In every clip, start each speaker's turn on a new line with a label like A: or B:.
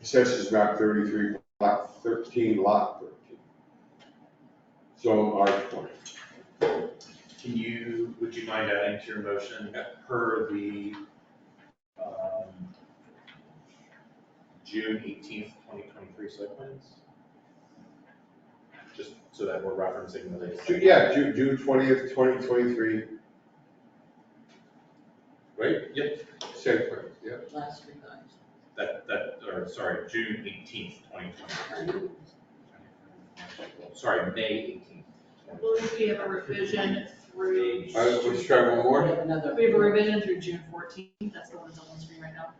A: Assessors map thirty-three, lot thirteen, lot thirteen. Zone R twenty.
B: Can you, would you mind adding to your motion per the, um, June eighteenth, twenty twenty-three site plans? Just so that we're referencing the latest.
A: Ju- Yeah, Ju- June twentieth, twenty twenty-three,
B: Right, yep,
A: site plan, yeah.
C: last revised.
B: that, that, or sorry, June eighteenth, twenty twenty-three. Sorry, May eighteenth.
D: I believe we have a revision through,
A: All right, let's try one
C: We
A: more.
C: have another.
D: we have a revision through June fourteenth, that's the one that's on the screen right now.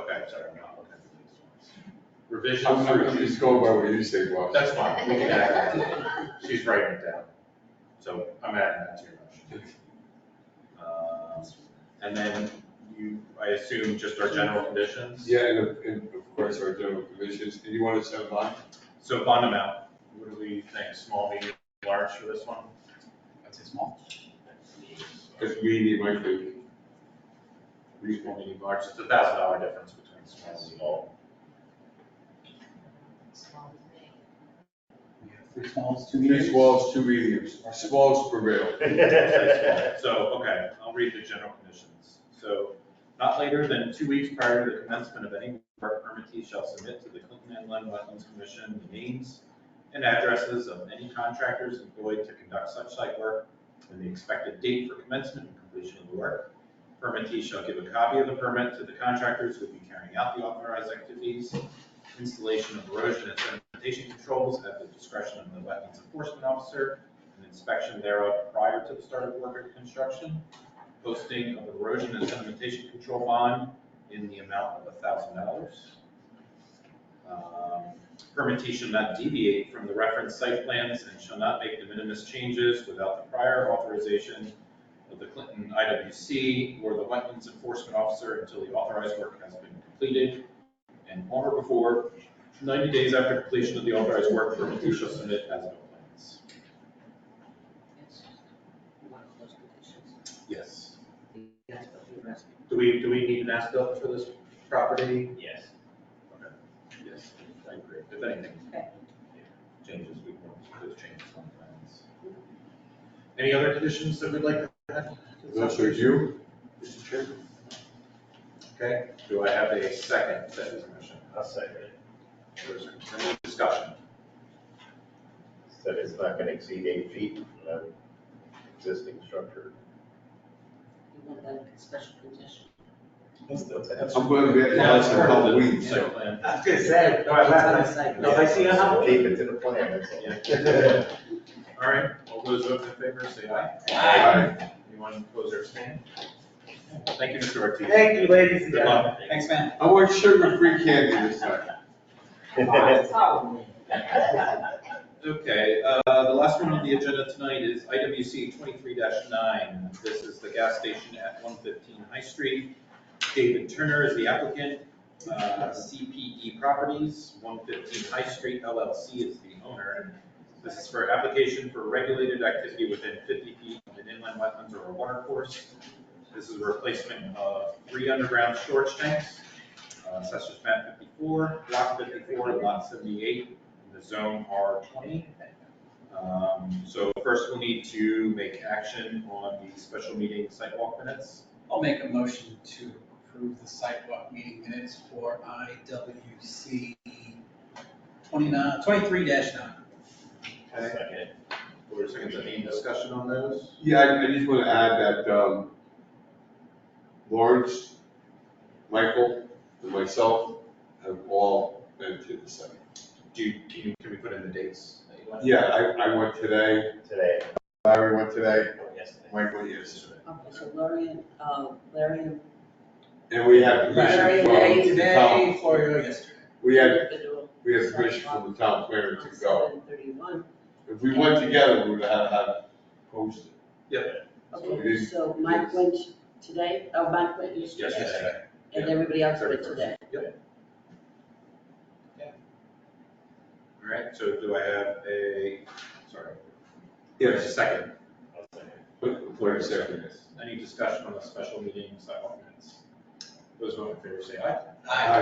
B: Okay, sorry, I'm not looking at the latest
A: I'm,
B: ones. Revision
A: I'm
B: through
A: I'm just
B: June.
A: going by what you say, Bob.
B: That's fine, we can add that. She's writing it down. So I'm adding that to your motion. Um, And then you, I assume just our general conditions?
A: Yeah, and, of- and of course, our general conditions, and you want us to have mine?
B: So bond amount, what do we think, small, medium, large for this one?
E: I'd say small.
A: Because we need my thing.
B: Small, medium, large, it's a thousand dollar difference between small and small.
E: We have three smalls, two mediums.
A: Three smalls, two mediums, smalls prevail.
B: So, okay, I'll read the general conditions. So, not later than two weeks prior to the commencement of any work, permittee shall submit to the Clinton Inland Wetlands Commission the names and addresses of any contractors employed to conduct such site work and the expected date for commencement and completion of the work. Permittee shall give a copy of the permit to the contractors who will be carrying out the authorized activities, installation of erosion and sedimentation controls at the discretion of the wetlands enforcement officer, an inspection thereof prior to the start of work or construction, posting of erosion and sedimentation control bond in the amount of thousand dollars. Permittee shall not deviate from the referenced site plans and shall not make de minimis changes without the prior authorization of the Clinton IWC or the Wetlands Enforcement Officer until the authorized work has been completed. And on or before, ninety days after completion of the authorized work, permittee shall submit as no plans.
C: One of those conditions.
B: Yes.
C: That's what we were asking.
B: Do we, do we need an as-built for this property?
F: Yes.
B: Yes, I agree. If anything
C: Okay.
B: changes, we can those changes on the plans. Any other conditions that we'd like to add?
A: Those are you, Mr. Chairman?
B: Okay, do I have a second to this motion?
F: I'll second it.
B: There's Any discussion?
F: Said it's not gonna exceed eight feet from the existing structure.
C: You want that in special condition.
A: I'm going to be,
B: Now,
A: that's
B: it's
A: a
B: part of
A: couple
B: the
A: weeks.
B: Site plan.
F: I was gonna say, no, I
C: It's on site.
F: No, I see uh-huh. how. Keep it to the plan, that's all.
B: All right, all those voting in favor, say aye.
A: Aye.
B: Anyone opposed or abstaining? Thank you, Mr. Ortiz.
F: Thank you, ladies
B: Good luck.
E: Thanks, man.
A: I want sugar-free candy this time.
B: Okay, uh, the last one on the agenda tonight is IWC twenty-three nine. This is the gas station at one fifteen High Street. David Turner is the applicant, uh, CPE Properties, one fifteen High Street LLC is the owner. This is for application for regulated activity within fifty feet of an inland wetlands or a water course. This is a replacement of three underground storage tanks, uh, assessors map fifty-four, block fifty-four, lot seventy-eight, in the zone R twenty. Um, so first we'll need to make action on the special meeting sidewalk minutes.
E: I'll make a motion to approve the sidewalk meeting minutes for IWC twenty-nine, twenty-three nine.
F: Second.
B: Or is there any discussion on those?
A: Yeah, I, I just want to add that, um, Lawrence, Michael, and myself have all been to the site.
B: Do you, can you, can we put in the dates? that you want?
A: Yeah, I, I went today,
F: Today,
A: Larry went today,
F: or yesterday.
A: Michael yesterday.
C: Okay, so Larry and, uh, Larry and.
A: And we had
C: Larry
A: permission from the town,
E: Today, Florio yesterday.
A: we had, we had permission from the town planner to go.
C: Seven thirty-one.
A: If we went together, we would have had posted.
C: Okay, so Mike went today, oh, Mike went yesterday,
B: Yesterday.
C: and everybody else went today.
B: All right, so do I have a, sorry.
A: Yes.
B: A Second.
F: I'll second.
A: But, wait a second.
B: Any discussion on the special meeting sidewalk minutes? Those who are in favor say aye.
A: Aye.